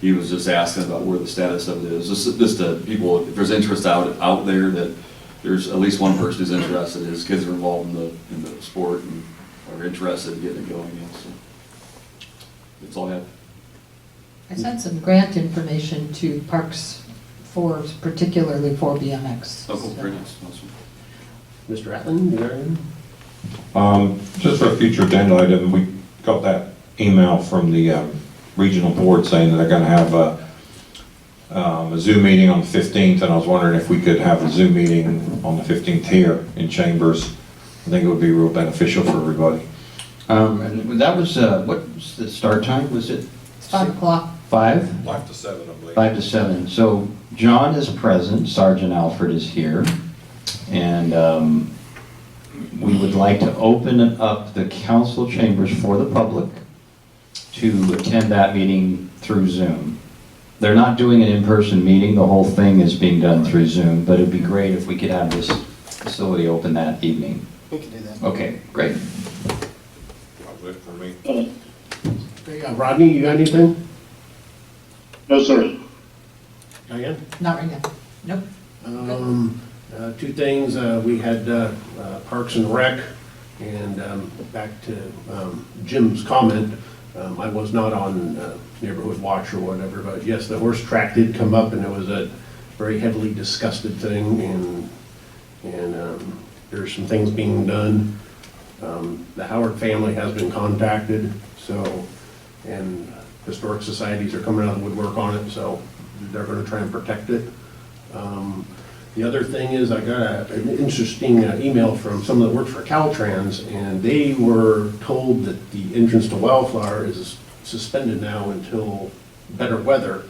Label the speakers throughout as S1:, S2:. S1: He was just asking about where the status of it is, just, just to people, if there's interest out, out there, that there's at least one person who's interested, his kids are involved in the, in the sport and are interested in getting it going, you know, so. That's all I have.
S2: I sent some grant information to Parks for, particularly for BMX.
S1: Oh, cool, very nice, awesome.
S3: Mr. Atland, is there anything?
S4: Um, Just for a future agenda item, we got that email from the um, regional board saying that they're going to have a um, a Zoom meeting on the 15th, and I was wondering if we could have a Zoom meeting on the 15th here in Chambers. I think it would be real beneficial for everybody.
S5: Um, and that was, uh, what was the start time? Was it
S2: It's five o'clock.
S5: five?
S4: Five to seven, I believe.
S5: Five to seven. So John is present, Sergeant Alfred is here. And, um, we would like to open up the council chambers for the public to attend that meeting through Zoom. They're not doing an in-person meeting, the whole thing is being done through Zoom, but it'd be great if we could have this facility open that evening.
S6: We can do that.
S5: Okay, great.
S4: for me.
S3: Uh, Rodney, you got anything?
S7: No, sir.
S3: Diane?
S2: Not right now. Nope.
S3: Um, uh, Two things, uh, we had uh, uh, Parks and Rec, and um, back to um, Jim's comment, um, I was not on uh, Neighborhood Watch or whatever, but yes, the horse track did come up, and it was a very heavily disgusted thing, and, and um, there's some things being done. Um, The Howard family has been contacted, so, and historic societies are coming out of the woodwork on it, so they're gonna try and protect it. Um, The other thing is, I got a- an interesting uh, email from someone that worked for Caltrans, and they were told that the entrance to Wildflower is suspended now until better weather.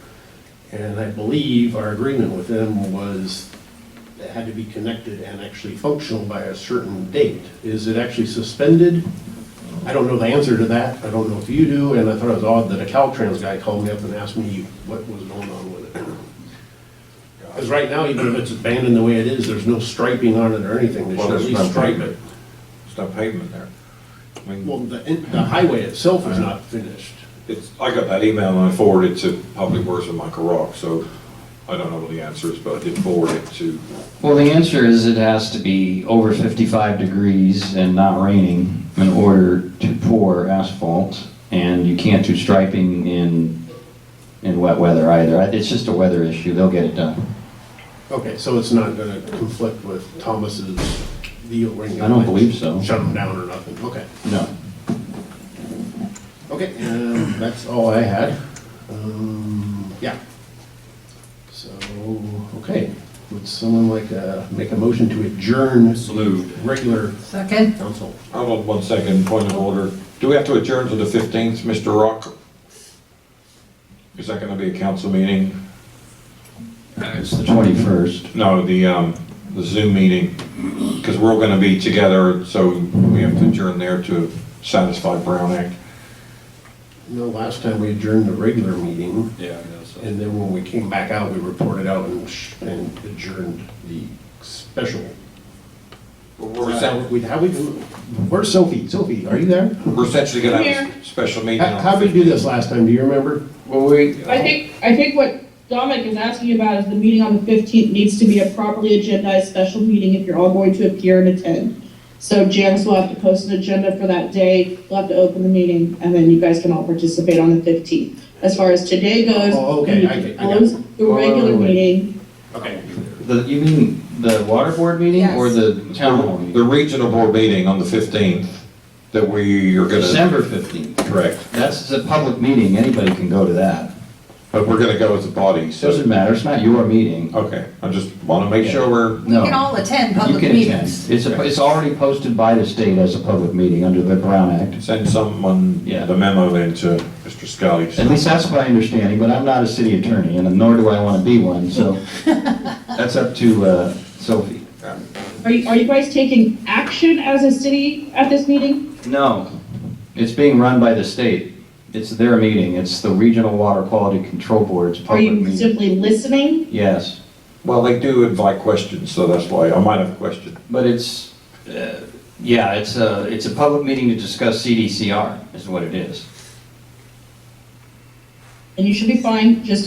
S3: And I believe our agreement with them was it had to be connected and actually functional by a certain date. Is it actually suspended? I don't know the answer to that. I don't know if you do, and I thought it was odd that a Caltrans guy called me up and asked me what was going on with it. Because right now, even if it's abandoned the way it is, there's no striping on it or anything, they
S4: Well,
S3: should at
S4: there's
S3: least
S4: no
S3: stripe it.
S4: pavement. There's no pavement there. I mean,
S3: Well, the, the highway itself is not finished.
S4: It's, I got that email and I forwarded it to Public Works and Michael Rock, so I don't know what the answer is, but I did forward it to
S5: Well, the answer is it has to be over 55 degrees and not raining in order to pour asphalt, and you can't do striping in, in wet weather either. I- It's just a weather issue, they'll get it done.
S3: Okay, so it's not gonna conflict with Thomas's deal ring?
S5: I don't believe so.
S3: Shut them down or nothing, okay.
S5: No.
S3: Okay, um, that's all I had. Um, yeah. So, okay, would someone like, uh, make a motion to adjourn
S1: Salute.
S3: regular
S2: Second?
S3: council?
S4: Hold on one second, point of order. Do we have to adjourn to the 15th, Mr. Rock? Is that going to be a council meeting?
S5: It's the 21st.
S4: No, the, um, the Zoom meeting, because we're all going to be together, so we have to adjourn there to satisfy Brown Act.
S3: No, last time we adjourned the regular meeting,
S1: Yeah, I know, so.
S3: and then when we came back out, we reported out and sh- and adjourned the special.
S4: We're
S3: How
S4: essen-
S3: we, how we do, where's Sophie? Sophie, are you there?
S4: we're essentially going to have a special meeting.
S3: How,
S4: on
S3: how did we do
S4: 15th.
S3: this last time, do you remember?
S5: Well, we,
S8: I think, I think what Dominic is asking about is the meeting on the fifteenth needs to be a properly agendized special meeting if you're all going to appear and attend. So Janice will have to post an agenda for that day, we'll have to open the meeting, and then you guys can all participate on the fifteenth. As far as today goes.
S3: Oh, okay,
S8: we need
S3: I
S8: to
S3: get- I got it.
S8: Close the
S5: Wait, wait,
S8: regular
S5: wait, wait.
S8: meeting,
S3: Okay.
S5: the- you mean the water board meeting or
S2: Yes.
S5: the town hall
S4: The
S5: meeting?
S4: regional board meeting on the 15th that we are going to.
S5: December 15th.
S4: Correct.
S5: That's a public meeting, anybody can go to that.
S4: But we're going to go as a body, so,
S5: Doesn't matter, it's not your meeting.
S4: okay, I just want to make sure we're
S5: No.
S2: attend
S5: You can attend. It's, a- it's already posted by the state as a public meeting under the Brown Act.
S4: Send someone
S5: Yeah.
S4: the memo then to Mr. Scully.
S5: At least that's my understanding, but I'm not a city attorney, and nor do I want to be one, so that's up to uh, Sophie.
S8: are you, are you guys taking action as a city at this meeting?
S5: No, it's being run by the state. It's their meeting. It's the Regional Water Quality Control Board's
S8: Are
S5: public
S8: you
S5: meeting.
S8: simply listening?
S5: Yes,
S4: Well, they do invite questions, so that's why I might have a question.
S5: but it's, uh, yeah, it's a, it's a public meeting to discuss CDCR is what it is.
S8: and you should be fine, just